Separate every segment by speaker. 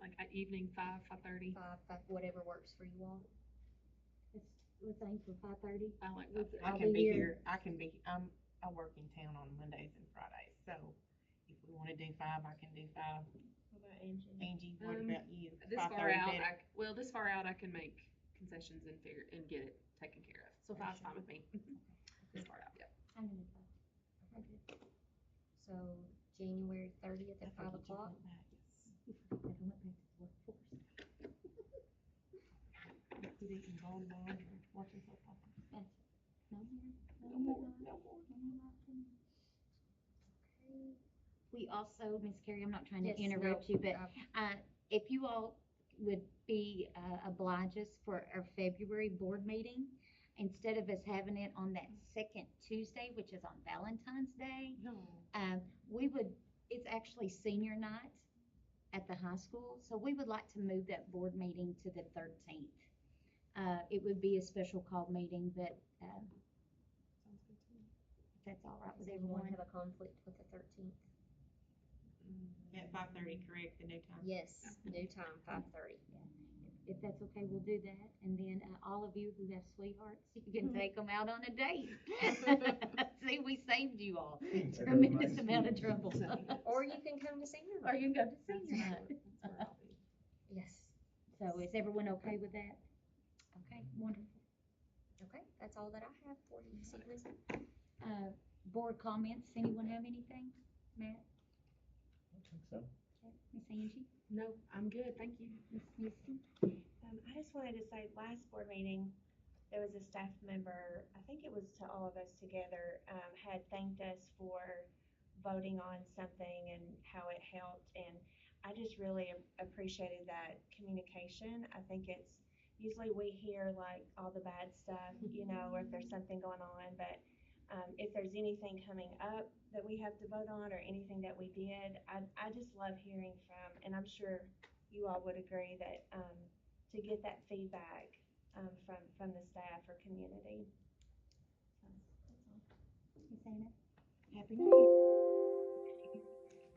Speaker 1: like at evening, five, five thirty,
Speaker 2: five, five, whatever works for you all. Let's, let's aim for five thirty.
Speaker 1: I like
Speaker 3: I-
Speaker 1: five thirty.
Speaker 3: I
Speaker 2: I'll
Speaker 3: can
Speaker 2: be
Speaker 3: be
Speaker 2: here.
Speaker 3: here, I can be, um, I work in town on Mondays and Fridays, so if we wanna do five, I can do five. Angie, what
Speaker 1: Um,
Speaker 3: about you?
Speaker 1: This
Speaker 3: Five
Speaker 1: far
Speaker 3: thirty
Speaker 1: out,
Speaker 3: better?
Speaker 1: I, c- well, this far out, I can make concessions and figure, and get it taken care of, so
Speaker 3: Okay,
Speaker 1: five's
Speaker 3: sure.
Speaker 1: fine with me. This far out, yep.
Speaker 2: I'm in at five. So January thirtieth
Speaker 3: I
Speaker 2: at five
Speaker 3: forget you
Speaker 2: o'clock.
Speaker 3: went back, yes. You didn't go to the laundry, watching football.
Speaker 2: No,
Speaker 3: No more, no more.
Speaker 4: We also, Miss Carrie, I'm not trying
Speaker 2: Yes,
Speaker 4: to
Speaker 2: no,
Speaker 4: interrupt you, but
Speaker 2: uh,
Speaker 4: uh, if you all would be uh, oblige us for our February board meeting, instead of us having it on that second Tuesday, which is on Valentine's Day, um, we would, it's actually senior night at the high school, so we would like to move that board meeting to the thirteenth. Uh, it would be a special call meeting, but, uh,
Speaker 3: Sounds good to me.
Speaker 4: if that's all right
Speaker 2: Does
Speaker 4: with
Speaker 2: everyone
Speaker 4: everyone.
Speaker 2: have a conflict with the thirteenth?
Speaker 3: At five thirty, correct, the new time?
Speaker 2: Yes, new time, five thirty.
Speaker 4: If that's okay, we'll do that, and then, uh, all of you who have sweethearts, you can take them out on a date. See, we saved you all tremendous amount of trouble.
Speaker 2: Or you can come to senior
Speaker 4: Or
Speaker 2: night.
Speaker 4: you can go to
Speaker 3: That's
Speaker 4: senior night.
Speaker 3: where- that's where I'll be.
Speaker 2: Yes,
Speaker 4: So is everyone okay with that? Okay, wonderful.
Speaker 2: okay, that's all that I have for you this evening.
Speaker 4: Uh, board comments, anyone have anything? Matt,
Speaker 5: So,
Speaker 4: Miss Angie,
Speaker 1: No, I'm good, thank you.
Speaker 4: Miss Missy?
Speaker 6: Um, I just wanted to say, last board meeting, there was a staff member, I think it was to all of us together, um, had thanked us for voting on something and how it helped, and I just really a- appreciated that communication. I think it's, usually we hear like all the bad stuff, you know, or if there's something going on, but, um, if there's anything coming up that we have to vote on or anything that we did, I, I just love hearing from, and I'm sure you all would agree that, um, to get that feedback um, from from the staff or community. So, that's all.
Speaker 4: Miss Anna? Happy New Year.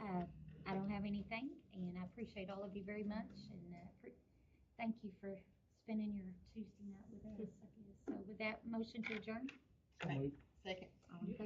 Speaker 4: Uh, I don't have anything, and I appreciate all of you very much, and, uh, pre- thank you for spending your Tuesday night with us, I guess. So with that, motion to adjourn?
Speaker 5: so moved.
Speaker 3: Second.
Speaker 4: All in favor?